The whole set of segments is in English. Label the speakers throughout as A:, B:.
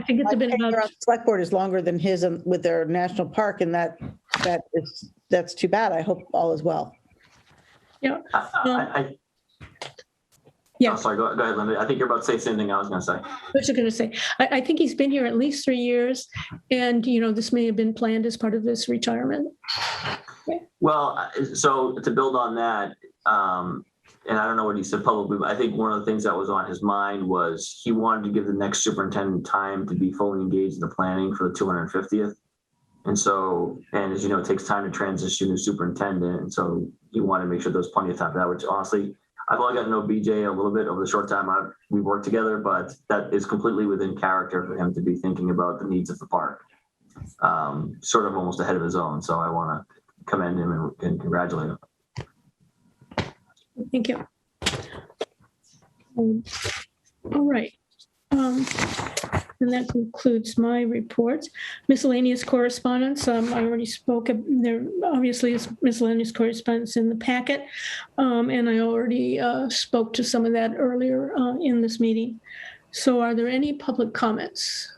A: I think it's been
B: tenure on
A: about,
B: the Select board is longer than his and- with their national park and that, that is, that's too bad. I hope all is well.
C: I, I, I-
A: yeah,
C: I'm sorry, go go ahead, Linda. I think you're about to say the same thing I was gonna say.
A: what you gonna say? I, I think he's been here at least three years. And, you know, this may have been planned as part of this retirement.
C: Well, I- so to build on that, um, and I don't know what he said publicly, but I think one of the things that was on his mind was he wanted to give the next superintendent time to be fully engaged in the planning for the two hundred and fiftieth. And so, and as you know, it takes time to transition to superintendent, and so you want to make sure there's plenty of time for that, which honestly, I've only gotten to know BJ a little bit over the short time I've, we've worked together, but that is completely within character for him to be thinking about the needs of the park. Um, sort of almost ahead of his own, so I want to commend him and, and congratulate him.
A: Thank you. Um, All right. Um, And that concludes my report. Miscellaneous correspondence, um, I already spoke, of- there obviously is miscellaneous correspondence in the packet. um, And I already uh, spoke to some of that earlier uh, in this meeting. So are there any public comments?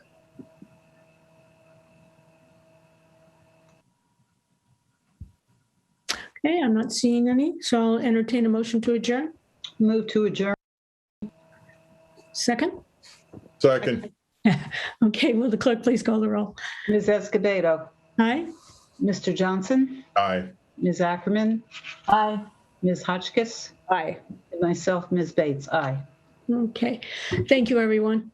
A: Okay, I'm not seeing any, so I'll entertain a motion to adjourn.
D: Move to adjourn.
A: Second?
E: Second,
A: Okay, will the clerk please call the roll?
D: Ms. Escobedo,
A: Aye?
D: Mr. Johnson,
E: aye.
D: Ms. Ackerman. Aye. Ms. Hotchkiss,
B: Aye.
D: and myself, Ms. Bates, aye.
A: Okay, thank you, everyone.